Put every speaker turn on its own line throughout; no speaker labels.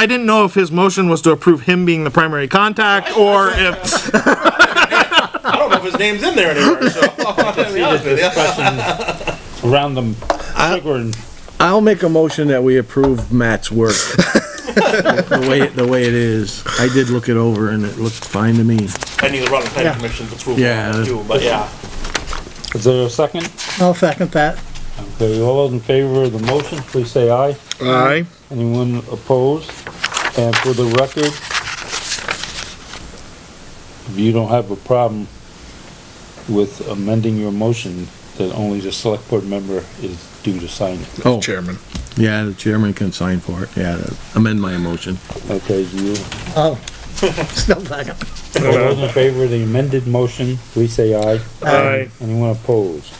I didn't know if his motion was to approve him being the primary contact or if,
I don't know if his name's in there anywhere, so. to be honest with you.
Around them, trigger and
I'll make a motion that we approve Matt's work. The way, the way it is. I did look it over and it looked fine to me.
I need the Rutland Planning Commission's approval
Yeah.
on it too, but yeah.
Is there a second?
I'll second that.
Okay, all those in favor of the motion, please say aye.
aye,
Anyone opposed? And for the record, if you don't have a problem with amending your motion, then only the select board member is due to sign it.
Oh,
chairman.
yeah, the chairman can sign for it. Yeah, amend my motion.
Okay, do you,
Oh, still second.
all those in favor of the amended motion, please say aye.
Aye.
Anyone opposed?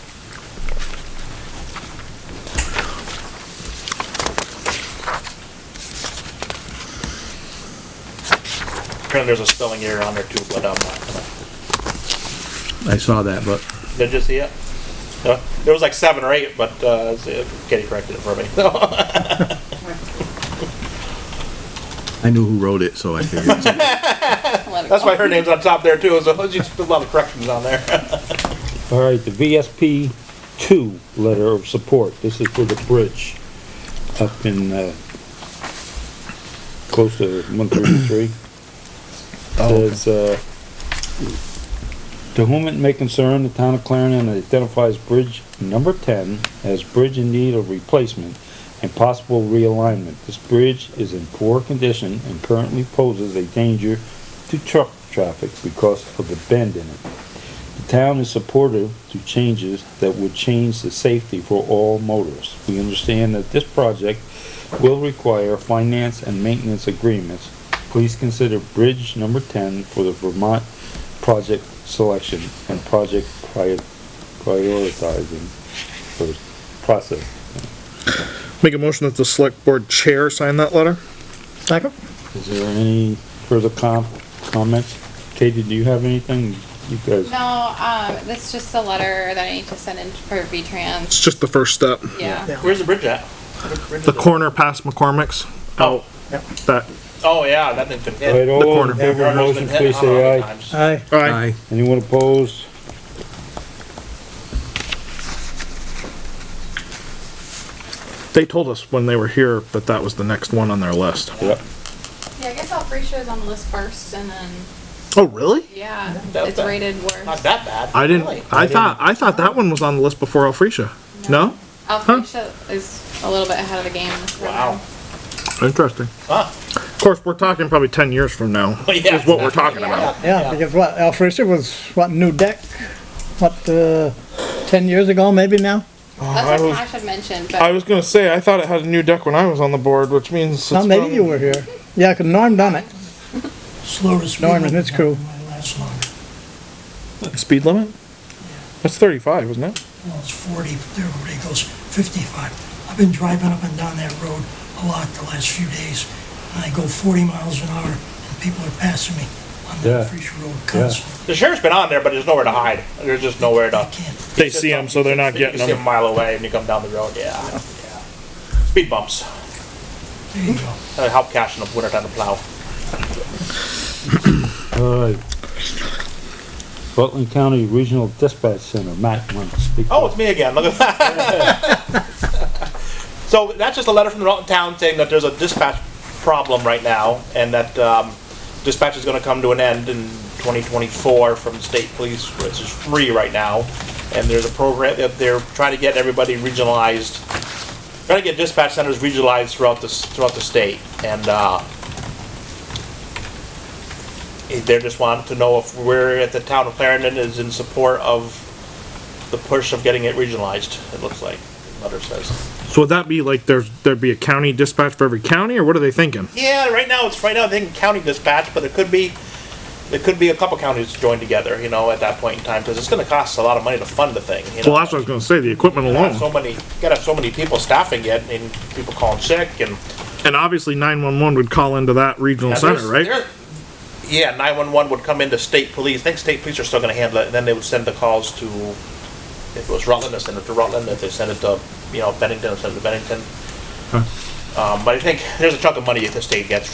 Apparently there's a spelling error on there too, but um, I'm not gonna.
I saw that, but
Did you see it? Uh, There was like seven or eight, but uh, let's see, Katie corrected it for me.
I knew who wrote it, so I figured.
That's why her name's on top there too, so there's just a lot of corrections on there.
All right, the VSP two letter of support, this is for the bridge up in, uh, close to one thirty-three. Says, uh, to whom it may concern, the town of Clarendon identifies bridge number ten as bridge in need of replacement and possible realignment. This bridge is in poor condition and currently poses a danger to truck traffic because of the bend in it. The town is supportive to changes that would change the safety for all motors. We understand that this project will require finance and maintenance agreements. Please consider Bridge Number Ten for the Vermont project selection and project prior- prioritizing for process.
Make a motion that the select board chair sign that letter?
Second?
Is there any further com- comments? Katie, do you have anything? You guys,
No, um, that's just a letter that I need to send in for V-Trans,
It's just the first step.
yeah.
Where's the bridge at?
The corner past McCormick's,
Oh,
that,
oh yeah, that thing's been.
all right,
The
all
corner.
in favor of the motion, please say aye.
Aye.
aye,
Aye.
Anyone opposed?
they told us when they were here that that was the next one on their list.
Yep.
Yeah, I guess Alphresia is on the list first, and then,
Oh, really?
yeah,
That-
it's
that-
rated
Not
worse.
that bad.
I
really.
didn't, I thought, I thought that one was on the list before Alphresia. No?
Alphresia is a little bit ahead of the game. in this
Wow.
program.
Interesting.
Huh.
Of course, we're talking probably ten years from now,
Well, yeah.
is what we're talking about.
Yeah, because what, Alphresia was, what, new deck? What, uh, ten years ago, maybe now?
That's what Cash had mentioned,
I
but
was gonna say, I thought it had a new deck when I was on the board, which means. it's
Not maybe
been-
you were here. Yeah, 'cause Norm done it.
Slow to speed.
Norm and his crew.
Might last longer.
Speed limit? That's thirty-five, isn't it?
Well, it's forty, everybody goes fifty-five. I've been driving up and down that road a lot the last few days. And I go forty miles an hour and people are passing me on
Yeah.
the Fresh Road constantly.
The sheriff's been on there, but there's nowhere to hide. There's just nowhere
I
to.
can't.
They see them, so they're not
You can
getting
see 'em a
them.
mile away when you come down the road, yeah. yeah. Speed bumps.
There you go.
That'll help cash in the winter time to plow.
Alright. Rutland County Regional Dispatch Center, Matt, want to speak?
Oh, it's me again. Look at that. so that's just a letter from the Rutland town saying that there's a dispatch problem right now, and that um, dispatch is going to come to an end in 2024 from the state police, which is free right now. And there's a program that they're trying to get everybody regionalized, trying to get dispatch centers regionalized throughout the s- throughout the state, and. Uh, they just want to know if we're at the town of Clarendon is in support of the push of getting it regionalized, it looks like, the letter says.
So would that be like there's, there'd be a county dispatch for every county, or what are they thinking?
Yeah, right now, it's right now, they can county dispatch, but it could be, it could be a couple counties joined together, you know, at that point in time, because it's gonna cost a lot of money to fund the thing, you know?
Well, that's what I was gonna say, the equipment
You gotta have So
alone.
many, you gotta have so many people staffing it, and people calling sick, and.
And obviously nine-one-one would call into that regional
Now,
center, right?
there's- there- Yeah, nine-one-one would come into state police, I think state police are still gonna handle it, and then they would send the calls to, if it was Rutland, they send it to Rutland, if they send it to, you know, Bennington, they send it to Bennington. Um, but I think there's a chunk of money that the state gets